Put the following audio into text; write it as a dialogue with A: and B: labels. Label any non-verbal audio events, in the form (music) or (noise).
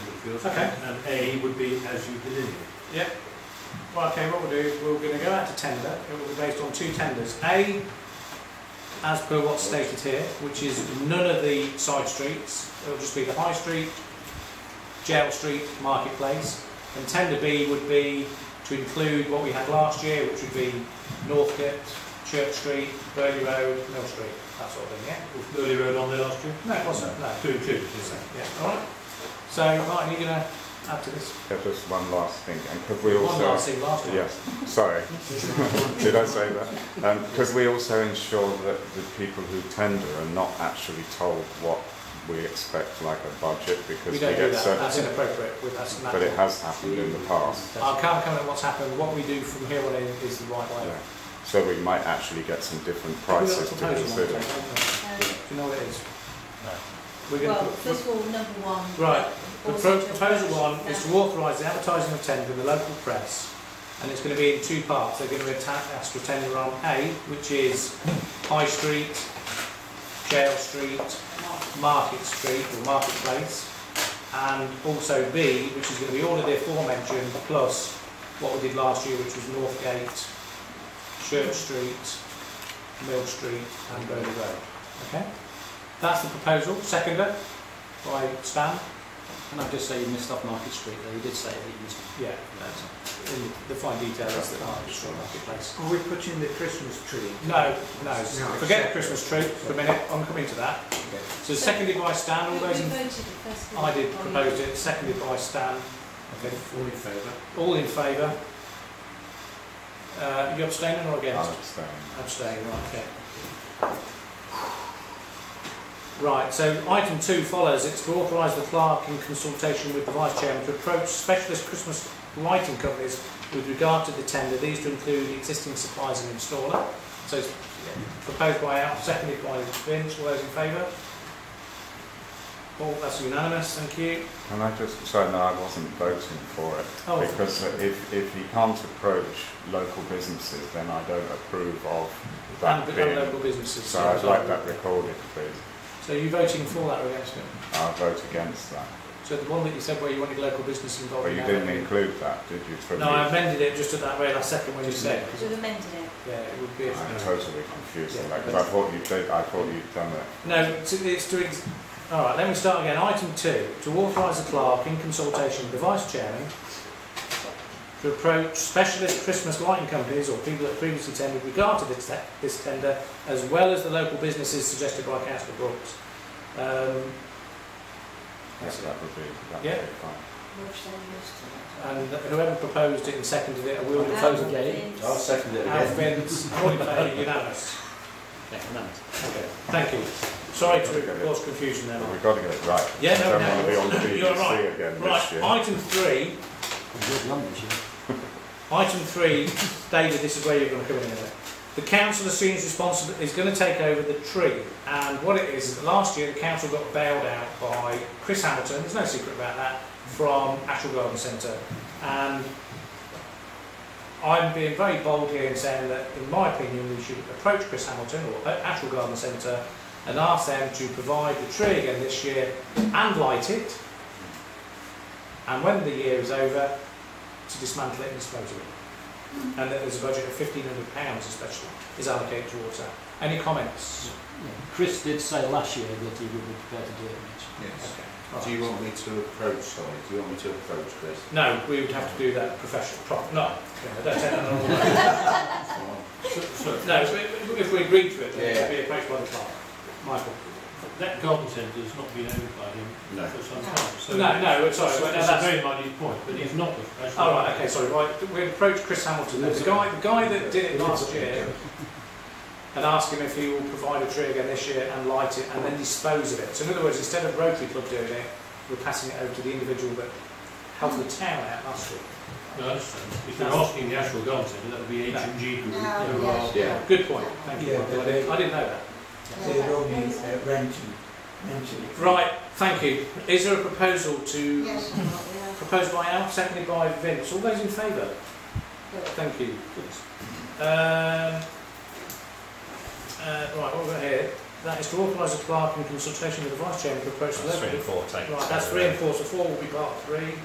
A: Good.
B: Okay.
A: And A would be as you delineate.
B: Yep. Well, okay, what we'll do is we're going to go out to tender. It will be based on two tenders. A, as per what's stated here, which is none of the side streets. It'll just be the High Street, Jail Street, Marketplace. And tender B would be to include what we had last year, which would be Northcote, Church Street, Burley Road, Mill Street, that sort of thing, yeah?
A: Was Burley Road on there last year?
B: No, it wasn't, no.
A: Two included,
B: So,
A: isn't it?
B: Yeah, all right. So, Martin, you're going to add to this?
C: There was one last thing, and could we
B: One last
C: also...
B: thing last time.
C: Yes, sorry, (laughs) did I say that? Um, could we also ensure that the people who tender are not actually told what we expect, like a budget, because
B: We
C: we
B: don't do
C: get
B: that,
C: so...
B: that's inappropriate with us. and that-
C: But it has happened in the past,
B: I can't comment on what's happened, what we do from here on in is the right way.
C: yeah. So we might actually get some different
B: Have we got a
C: prices to
B: proposal on the
C: consider.
B: table, haven't we?
D: Um,
B: Do you know what it is?
A: No.
B: We're
D: Well,
B: going to,
D: first of all, number one.
B: Right, the
D: also
B: pro-
D: to
B: proposal one
D: approach
B: is
D: that-
B: to authorise the advertising of tender in the local press, and it's going to be in two parts, they're going to attack us with tender on A, which is High Street, Jail Street, Market Street or Marketplace, and also B, which is going to be all of the aforementioned, plus what we did last year, which was Northgate, Church Street, Mill Street and Burley Road. Okay? That's the proposal, seconded by Stan.
E: Can I just say you missed off Market Street there? You did say that you missed off.
B: Yeah,
E: That's-
B: in the fine details of the Market Street Marketplace.
F: Are we putting the Christmas tree?
B: No, no,
F: No.
B: forget the Christmas tree for a minute, I'm coming to that. So seconded by Stan, all
D: We
B: those
D: voted
B: in
D: it first. of all.
B: I did propose it, seconded by Stan.
F: Okay, all in favour?
B: All in favour? Uh, you abstaining or
C: I'll
B: against?
C: abstain.
B: Abstaining, right, okay. Right, so item two follows. It's to authorise the clerk in consultation with the vice chairman to approach specialist Christmas lighting companies with regard to the tender. These to include existing suppliers and installer. So it's proposed by Al, seconded by Vince. All those in favour? All, that's unanimous, thank you.
C: Can I just say, no, I wasn't voting for it.
B: Oh.
C: Because if, if you can't approach local businesses, then I don't approve of
B: And uh,
C: that
B: the
C: being...
B: local businesses.
C: So
B: yeah,
C: I'd
B: sorry.
C: like that recorded, please.
B: So you're voting for that or against it?
C: I'll vote against that.
B: So the one that you said where you wanted local business involved.
C: But you
B: in
C: didn't
B: that-
C: include that, did you? From
B: No, I
C: you?
B: amended it just at that very last second when you said.
D: So we've amended it.
B: Yeah, it would be.
C: I'm totally confused
B: Yeah,
C: on that, 'cause
B: but-
C: I thought you did, I thought you'd done it.
B: No, to- it's to, ex- all right, let me start again. Item two, to authorise the clerk in consultation with the vice chairman to approach specialist Christmas lighting companies or people that previously tendered with regard to this, te- this tender, as well as the local businesses suggested by councillor Brooks. Um,
C: Yes,
B: That's it.
C: that would be, that would
B: Yeah.
C: be fine.
B: and whoever proposed it and seconded it, I will
E: I'll
B: oppose
E: Propose
B: it.
E: again.
D: I'll
E: second it
B: Al Vince, all in favour, unanimous.
E: Yeah, unanimous.
B: Okay, thank you. Sorry to cause confusion there.
C: But
B: Mark.
C: we've got to get it right.
B: Yeah, no,
C: I
B: no,
C: don't want to be
B: you're
C: on
B: right.
C: BBC again this
B: Right,
C: year.
B: item three,
E: Good numbers, yeah.
B: item three, David, this is where you're going to come in a minute. The council assumes responsible, is going to take over the tree. And what it is, is last year the council got bailed out by Chris Hamilton, there's no secret about that, from Ashwell Garden Centre. And I'm being very bold here in saying that, in my opinion, we should approach Chris Hamilton or Ashwell Garden Centre and ask them to provide the tree again this year and light it. And when the year is over, to dismantle it and dispose of it. And that there's a budget of fifteen hundred pounds especially is allocated towards that. Any comments?
E: Yeah, Chris did say last year that he would be prepared to do it, Mitch.
F: Yes.
B: Right.
A: Do you want me to approach, sorry, do you want me to approach Chris?
B: No, we would have to do that professionally, prop, no, I don't take that on board. No, so if if we agreed to it, then it would be approached by the clerk. Michael?
G: That garden centre has not been owned by him
A: No.
G: for some time, so.
B: No, no, sorry,
G: So
B: well, no,
G: That's a
B: that's,
G: very minor point, but he's not. the professional.
B: oh, right, okay, sorry, right, we approach Chris Hamilton, the guy, the guy that did it last year, and ask him if he will provide a tree again this year and light it and then dispose of it. So in other words, instead of Rotary Club doing it, we're passing it over to the individual that helped the town out last week.
G: No, I understand. If you're asking the actual garden centre, that would be H
B: No.
G: and G Group.
D: No,
G: who are-
D: yeah.
A: Yeah.
B: Good point, thank you.
F: Yeah,
B: Michael. I
F: but they-
B: didn't I didn't know that.
F: They're only uh, renting, renting it.
B: Right, thank you. Is there a proposal to,
D: Yes, or not, yeah.
B: proposed by Al, seconded by Vince? All those in favour?
D: Good.
B: Thank you. Um, uh, right, what have we got here? That is to authorise the clerk in consultation with the vice chairman to approach the
C: That's three
B: level.
C: and four, take.
B: Right, that's three and four, so four will be part three.